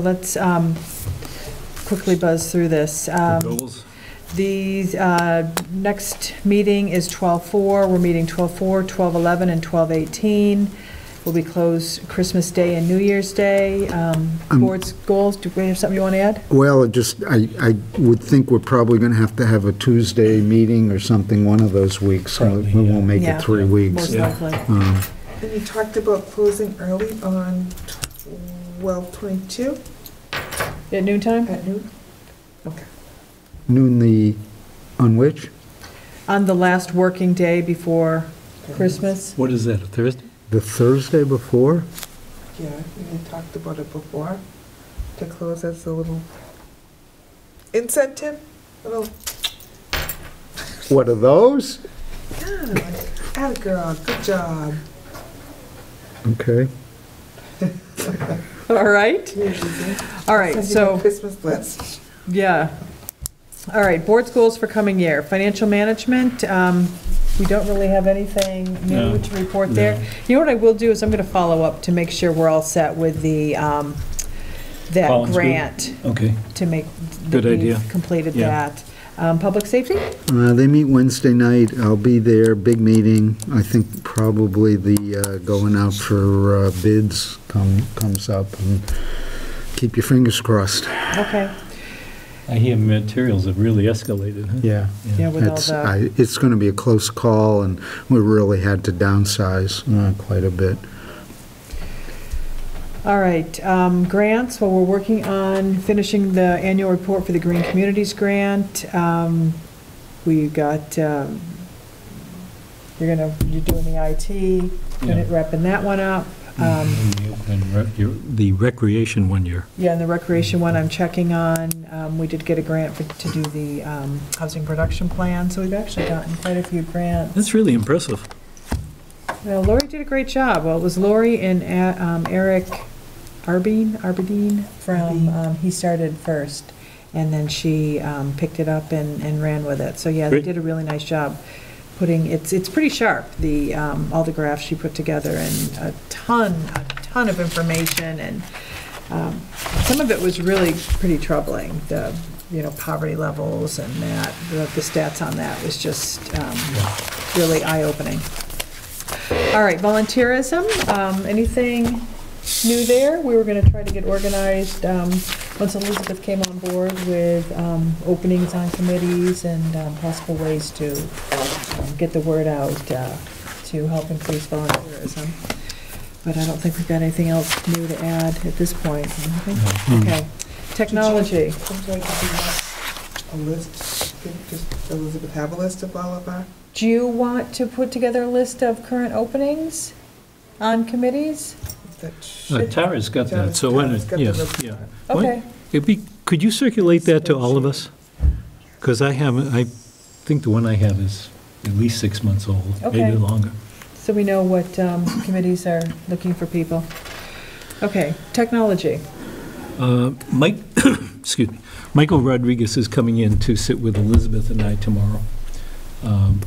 Let's um, quickly buzz through this. Um, Goals? The uh, next meeting is 12:04. We're meeting 12:04, 12:11, and 12:18. We'll be closed Christmas Day and New Year's Day. Um, Um, Board's goals, do we have something you want to add? Well, it just, I, I would think we're probably going to have to have a Tuesday meeting or something one of those weeks. so Probably, We won't make yeah. it three weeks. Most Yeah. likely. Um, And you talked about closing early on twelve twenty-two At noon time? at noon? Okay. Noon the, on which? On the last working day before Christmas? What is that, a Thursday? The Thursday before? Yeah, we had talked about it before, to close as a little incentive, little, What are those? ah, girl, good job. Okay. All right, all right, Send you so. the Christmas list. Yeah. All right, board's goals for coming year. Financial management, um, we don't really have anything new No. to report there. You know what I will do is I'm going to follow up to make sure we're all set with the, um, that Collins Group? grant Okay. to make. that Good we've idea. Completed Yeah. that. Um, Public safety? Uh, They meet Wednesday night. I'll be there, big meeting. I think probably the uh, going out for uh, bids come comes up. and Keep your fingers crossed. Okay, I hear materials have really escalated, huh? Yeah. yeah, with all It's, the, I- it's going to be a close call, and we really had to downsize uh, quite a bit. all right. um, Grants, well, we're working on finishing the annual report for the Green Communities Grant. Um, We got, um, you're going to, you're doing the IT. Yeah. wrapping that one up. Um, And the Oakland rec- your- The recreation one year. Yeah, and the recreation one I'm checking on. Um, We did get a grant for- to do the um, housing production plan, so we've actually gotten quite a few grants. That's really impressive. Well, Lori did a great job. Well, it was Lori and uh, um, Eric Arbeen, Arbedeen from, um, he started first, and then she um, picked it up and and ran with it. So, yeah, they Great. did a really nice job putting, it's, it's pretty sharp, the, um, all the graphs she put together, and a ton, a ton of information, and um, some of it was really pretty troubling, the, you know, poverty levels and that, the the stats on that was just um, really eye-opening. All right, volunteerism, um, anything new there? We were gonna try to get organized, um, once Elizabeth came on board with, um, openings on committees and, um, possible ways to, um, get the word out, uh, to help increase volunteerism. But I don't think we've got anything else new to add at this point, okay? Okay, technology, I'm sorry, did you want A list, did does Elizabeth have a list of all of our? do you want to put together a list of current openings on committees? that Uh, should- Tara's got that, so why Tara's not, got the yes, report. yeah. Why- Okay, It'd be, could you circulate that to all of us? Because I haven't, I think the one I have is at least six months old, Okay. maybe longer. So we know what um, committees are looking for people. Okay, technology. Uh, Mike, excuse me, Michael Rodriguez is coming in to sit with Elizabeth and I tomorrow. Um,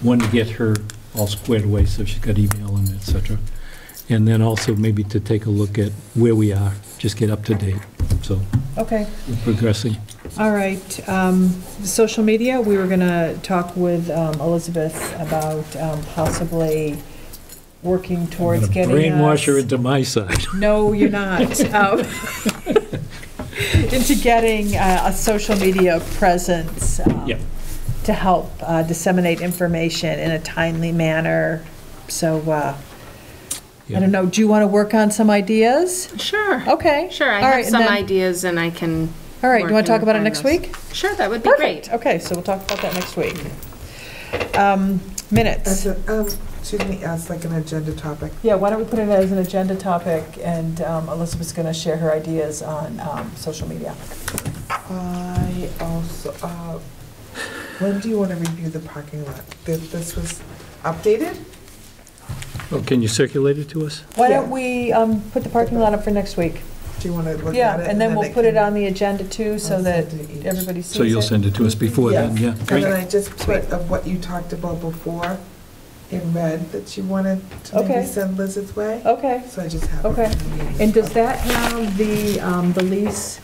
One, to get her all squared away, so she's got email and et cetera. And then also maybe to take a look at where we are, just get up to date. So Okay, we're progressing. all right. um, Social media, we were going to talk with um, Elizabeth about um, possibly working towards I'm gonna getting Brainwash her us. into my side. No, you're not. Um, Into getting uh, a social media presence. um, Yep. To help uh, disseminate information in a timely manner. So, uh, I don't know, do you want to work on some ideas? Sure. Okay. Sure, I All right, have and some then- ideas and I can. All right, you work want to talk and about it refine next those. week? Sure, that would be Perfect. great. Okay, so we'll talk about that next week. Um, Minutes. As a, um, excuse me, as like an agenda topic. Yeah, why don't we put it as an agenda topic, and um, Elizabeth's going to share her ideas on um, social media. I also, uh, when do you want to review the parking lot? This, this was updated? Oh, Can you circulate it to us? Why don't we um, put the parking lot up for next week? Do you want to look at it? Yeah, and then we'll I put it can- on the agenda too, so I'll that send it each. everybody sees it. So you'll send it to us before then, yeah. And then Great. I just put of what you talked about before in red that you wanted to maybe Okay. send Liz's way. Okay. So I just have it. Okay. in the meeting. And does that have the, um, the lease